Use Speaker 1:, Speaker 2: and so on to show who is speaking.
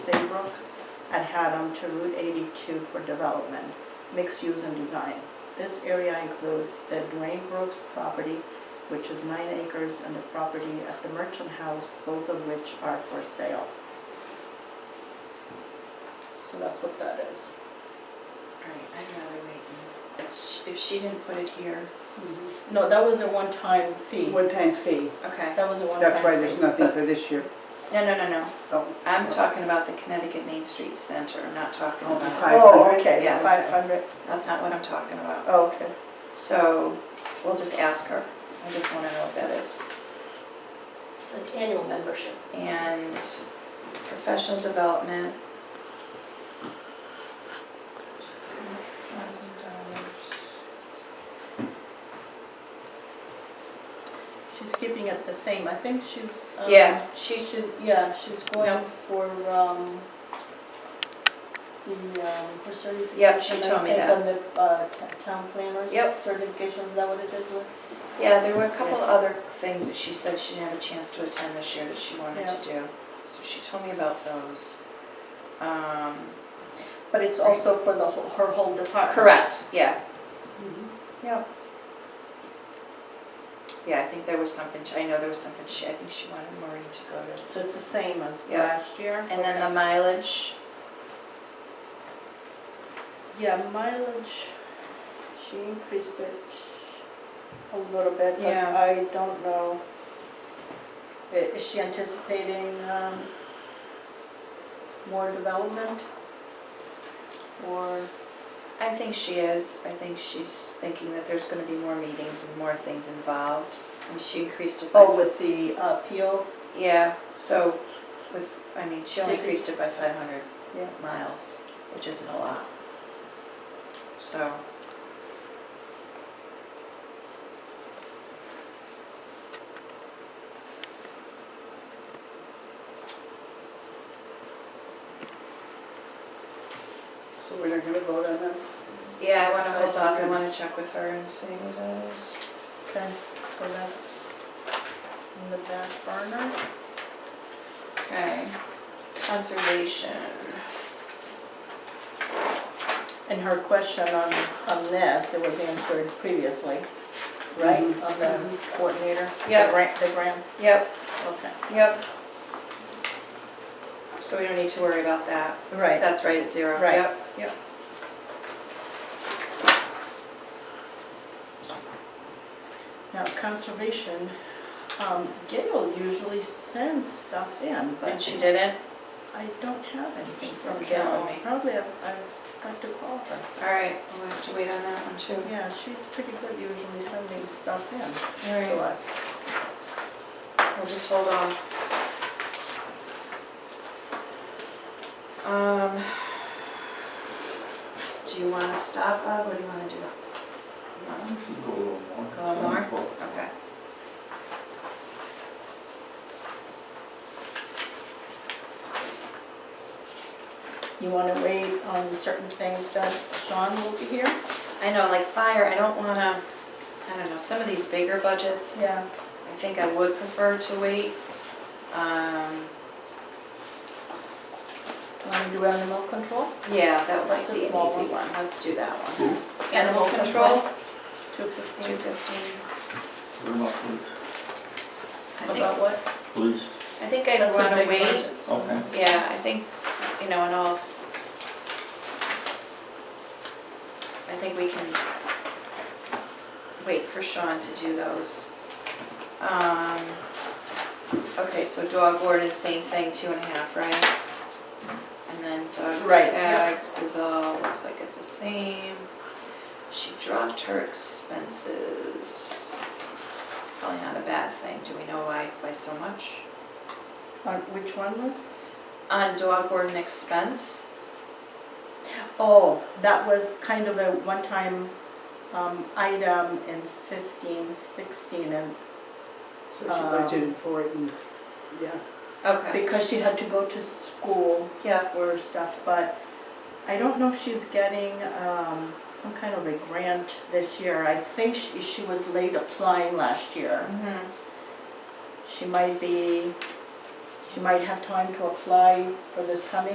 Speaker 1: Pembroke and Haddam to Route 82 for development, mixed use and design. This area includes the Dwayne Brooks property, which is nine acres, and the property at the Merchant House, both of which are for sale. So that's what that is.
Speaker 2: Right, I'd rather wait. and- if sh- If she didn't put it here,
Speaker 1: No, that was a one-time fee.
Speaker 3: One-time fee,
Speaker 2: okay.
Speaker 1: That was a one-time fee.
Speaker 3: that's why there's nothing for this year.
Speaker 2: No, no, no, no.
Speaker 3: Oh,
Speaker 2: I'm talking about the Connecticut Main Street Center, I'm not talking
Speaker 3: Oh, the
Speaker 2: about,
Speaker 3: five-
Speaker 1: Oh, okay,
Speaker 2: Yes.
Speaker 1: 500,
Speaker 2: that's not what I'm talking about.
Speaker 1: oh, okay.
Speaker 2: So we'll just ask her. I just want to know what that is.
Speaker 4: It's an annual membership.
Speaker 2: And professional development. She's got $1,000.
Speaker 1: She's keeping it the same, I think she's.
Speaker 3: Oh.
Speaker 1: um,
Speaker 2: Yeah,
Speaker 1: She should, yeah, she's going
Speaker 2: No.
Speaker 1: for, um, the, um, her certification.
Speaker 2: Yep, she told me
Speaker 1: I think,
Speaker 2: that.
Speaker 1: On the, uh, t- town planners.
Speaker 2: Yep.
Speaker 1: Certification, is that what it is with?
Speaker 2: Yeah, there were a couple other things that she said she didn't have a chance to attend this year that she wanted to do. So she told me about those. Um,
Speaker 1: But it's also for the, whole- her whole department.
Speaker 2: Correct, yeah,
Speaker 1: Mhm.
Speaker 2: yeah. Yeah, I think there was something, I know there was something she, I think she wanted Maureen to go to.
Speaker 1: So it's the same as
Speaker 2: Yeah.
Speaker 1: last year?
Speaker 2: And then the mileage,
Speaker 1: Yeah, mileage, she increased it a little bit, but
Speaker 2: Yeah.
Speaker 1: I don't know. I- Is she anticipating um, more development? Or,
Speaker 2: I think she is, I think she's thinking that there's gonna be more meetings and more things involved. And she increased it by
Speaker 1: oh, with the uh, PO?
Speaker 2: Yeah, so with, I mean, she only
Speaker 1: Fifty.
Speaker 2: increased it by five hundred
Speaker 1: Yeah.
Speaker 2: miles, which isn't a lot. So.
Speaker 3: So we're not gonna vote on that?
Speaker 2: Yeah, I wanna hold off, I
Speaker 3: Okay.
Speaker 2: wanna check with her and see what it is.
Speaker 1: Okay, so that's in the back burner.
Speaker 2: Okay, conservation.
Speaker 1: And her question on, on this, it was answered previously, right?
Speaker 3: Mhm.
Speaker 1: On the coordinator?
Speaker 2: Yeah.
Speaker 1: The grant, the grant,
Speaker 2: Yep,
Speaker 1: okay.
Speaker 2: yep. So we don't need to worry about that,
Speaker 1: Right.
Speaker 2: that's right at zero,
Speaker 1: Right.
Speaker 2: yep, yep.
Speaker 1: Now, conservation, um, Gail usually sends stuff in,
Speaker 2: And
Speaker 1: but
Speaker 2: she didn't,
Speaker 1: I don't have anything from
Speaker 2: From
Speaker 1: Gail.
Speaker 2: Gail.
Speaker 1: Probably I've, I've got to call her.
Speaker 2: alright, we'll have to wait on that one too.
Speaker 1: Yeah, she's pretty good usually sending stuff in to
Speaker 2: Alright,
Speaker 1: us.
Speaker 2: We'll just hold off. Um, do you wanna stop, Bob, or do you wanna do? No?
Speaker 5: Go a little more.
Speaker 2: Go a little more? Okay.
Speaker 1: You wanna wait on certain things that Sean will be here?
Speaker 2: I know, like fire, I don't wanna, I don't know, some of these bigger budgets,
Speaker 1: Yeah.
Speaker 2: I think I would prefer to wait. Um,
Speaker 1: Wanna do animal control?
Speaker 2: yeah, that might
Speaker 1: That's a
Speaker 2: be an
Speaker 1: small
Speaker 2: easy
Speaker 1: one.
Speaker 2: one, let's do that one.
Speaker 5: Who?
Speaker 2: Animal
Speaker 1: Animal
Speaker 2: control,
Speaker 1: Two
Speaker 2: two
Speaker 1: fifteen.
Speaker 2: fifteen.
Speaker 5: What
Speaker 2: I think,
Speaker 5: about police?
Speaker 1: About what?
Speaker 5: Police?
Speaker 2: I think I'd
Speaker 1: That's a
Speaker 2: wanna
Speaker 1: big
Speaker 2: wait.
Speaker 1: budget.
Speaker 5: Okay.
Speaker 2: Yeah, I think, you know, and all, I think we can wait for Sean to do those. Um, okay, so dog warden, same thing, two and a half, right? And then dog
Speaker 1: Right, yeah.
Speaker 2: tags is all, looks like it's the same. She dropped her expenses. It's probably not a bad thing. Do we know why, by so much?
Speaker 1: On which one was?
Speaker 2: On dog warden expense,
Speaker 1: Oh, that was kind of a one-time um, item in 15, 16, and
Speaker 3: So she
Speaker 1: Um,
Speaker 3: budgeted for it and, yeah.
Speaker 2: okay.
Speaker 1: because she had to go to school
Speaker 2: Yeah.
Speaker 1: for stuff, but I don't know if she's getting um, some kind of a grant this year. I think she she was late applying last year.
Speaker 2: Mhm.
Speaker 1: She might be, she might have time to apply for this coming